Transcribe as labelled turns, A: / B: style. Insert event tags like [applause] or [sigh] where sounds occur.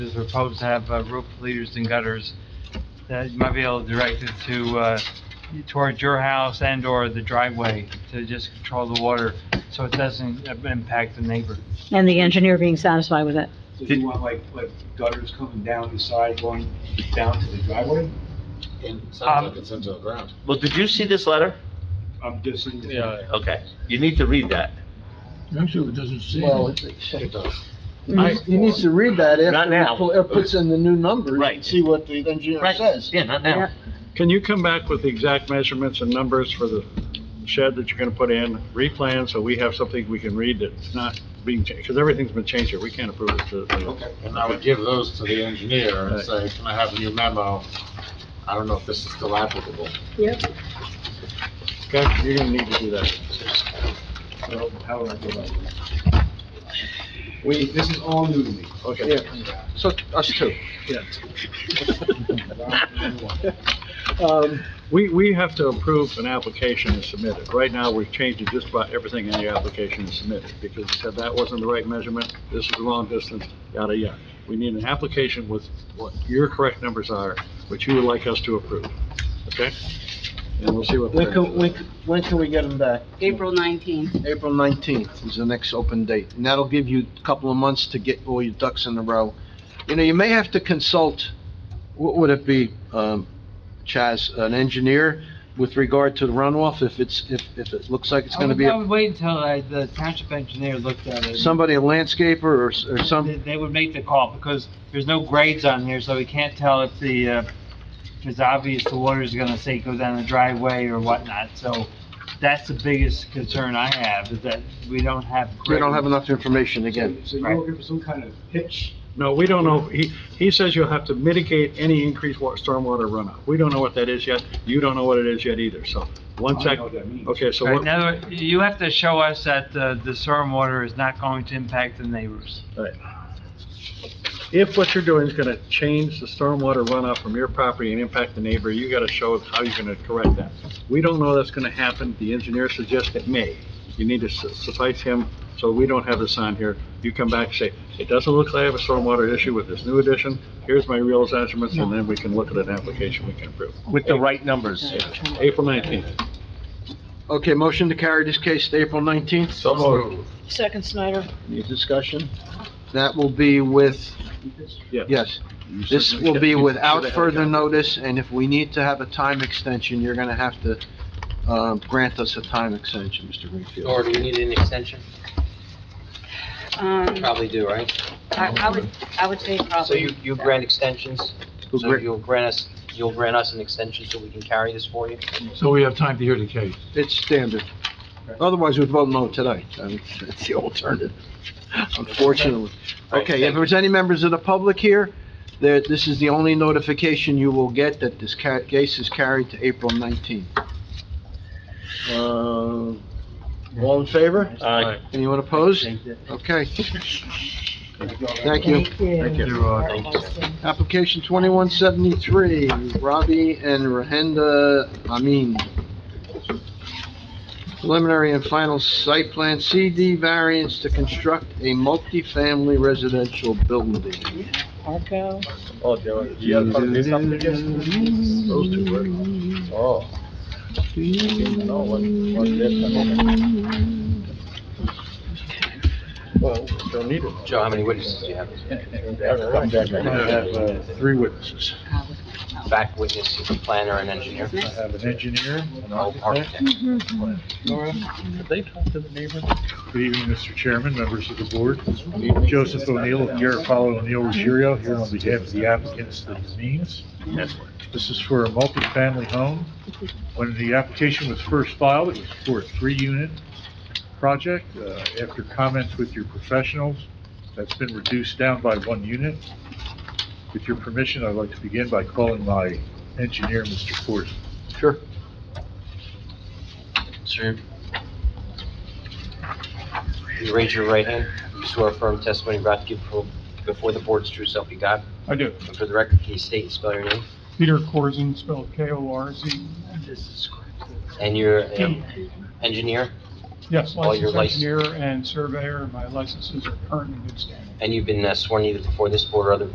A: is proposed to have uh, roof leaders and gutters, that you might be able to direct it to, uh, towards your house and/or the driveway to just control the water so it doesn't uh, impact the neighbor.
B: and the engineer being satisfied with it.
C: So do you want like, like gutters coming down the side going down to the driveway?
D: And
A: Um,
D: sounds like it's into the ground.
E: Well, did you see this letter?
C: I'm just saying.
E: Okay, you need to read that.
F: Actually, it doesn't say.
G: Well,
F: anything.
G: it-
D: It
G: it-
D: does.
G: he needs to read that
E: Not now.
G: after it puts in the new numbers.
E: Right.
G: and See what the engineer
E: Right,
G: says.
E: yeah, not now.
B: Yeah.
H: Can you come back with the exact measurements and numbers for the shed that you're gonna put in, replan, so we have something we can read that's not being changed, because everything's been changed here, we can't approve it to,
D: Okay. And I would give those to the engineer and say, can I have a new memo? I don't know if this is still applicable.
H: Okay, you're gonna need to do that.
C: So how would I go about it? Wait, this is all new to me.
H: Okay.
G: So, us too.
H: [laughs] Um, We, we have to approve an application and submit it. Right now, we've changed just about everything in the application and submitted, because we said that wasn't the right measurement, this is the wrong distance, yada, yada. We need an application with what your correct numbers are, which you would like us to approve, okay? And we'll see what.
G: When can, when, c- when can we get them back?
I: April 19th.
G: April 19th is the next open date, and that'll give you a couple of months to get all your ducks in a row. You know, you may have to consult, what would it be, um, Chaz, an engineer with regard to the runoff, if it's, if, if it looks like it's
A: I
G: gonna
A: would-
G: be,
A: I
G: a-
A: would wait until I- the township engineer looked at it.
G: somebody, a landscaper or, s- or
A: They-
G: some,
A: They would make the call, because there's no grades on here, so we can't tell if the, uh, if it's obvious the water's gonna say go down the driveway or whatnot, so that's the biggest concern I have, is that we don't have.
G: we don't have
A: grades.
G: enough information
C: So,
G: again.
C: so you're looking for some kind of pitch?
H: No, we don't know, he, he says you'll have to mitigate any increased wa, stormwater runoff. We don't know what that is yet, you don't know what it is yet either, so, one
C: I don't
H: sec.
C: know what that means.
H: Okay, so
A: Right,
H: what,
A: in other words, you have to show us that uh, the stormwater is not going to impact the neighbors.
H: if what you're doing is gonna change the stormwater runoff from your property and impact the neighbor, you gotta show how you're gonna correct that. We don't know that's gonna happen, the engineer suggests it may. You need to su- suffice him, so we don't have this on here. You come back and say, it doesn't look like I have a stormwater issue with this new addition, here's my real measurements, and then we can look at an application we can approve.
E: With the right numbers.
H: April nineteenth.
G: Okay, motion to carry this case to April 19th,
D: So moved.
B: Second, Snyder.
G: any discussion? That will be with, yes. This will be without further notice, and if we need to have a time extension, you're gonna have to, um, grant us a time extension, Mr. Greenfield.
J: Or do we need an extension?
I: Um, I,
J: Probably do, right?
I: I would, I would say probably.
J: So you, you grant extensions?
G: We'll
J: So
G: grant-
J: you'll grant us, you'll grant us an extension so we can carry this for you?
F: So we have time to hear the case.
G: It's standard. Otherwise, we'd vote no tonight. I mean, [laughs] That's the alternative, unfortunately.
J: Right,
G: Okay,
J: thank
G: if there's any members of the public here, that this is the only notification you will get that this ca- case is carried to April 19th. Uh, all in favor?
E: Uh,
G: Anyone opposed? Okay, thank you.
B: Thank
G: Application 2173, Robbie and Rahenda Amin. Preliminary and final site plan, CD variance to construct a multifamily residential building.
B: Arco.
D: Oh, Joey, you had to do something against those two words. Oh. No, what, what
F: Well, don't need it.
J: Joe, how many witnesses do you have?
F: Three witnesses.
J: Back witness, is a planner and engineer?
F: I have an engineer, an
J: Oh,
F: architect.
J: architect.
F: Laura, did they talk to the neighbor? Good evening, Mr. Chairman, members of the board. Joseph O'Neill, of Garofalo O'Neill Ruggiero, here on behalf of the applicants, the Demines. This is for a multifamily home. When the application was first filed, it was for a three-unit project. Uh, After comments with your professionals, that's been reduced down by one unit. With your permission, I'd like to begin by calling my engineer, Mr. Forst.
G: Sure.
J: Sir. You raise your right hand. You swear a firm testimony you're about to give before- before the board's true self you got.
H: I do.
J: And for the record, can you state and spell your name?
H: Peter Korzen, spelled K-O-R-Z.
J: And your engineer?
H: Yes,
J: All your
H: licensed
J: license-
H: engineer and surveyor, my licenses are current and good standing.
J: And you've been uh, sworn either before this board or other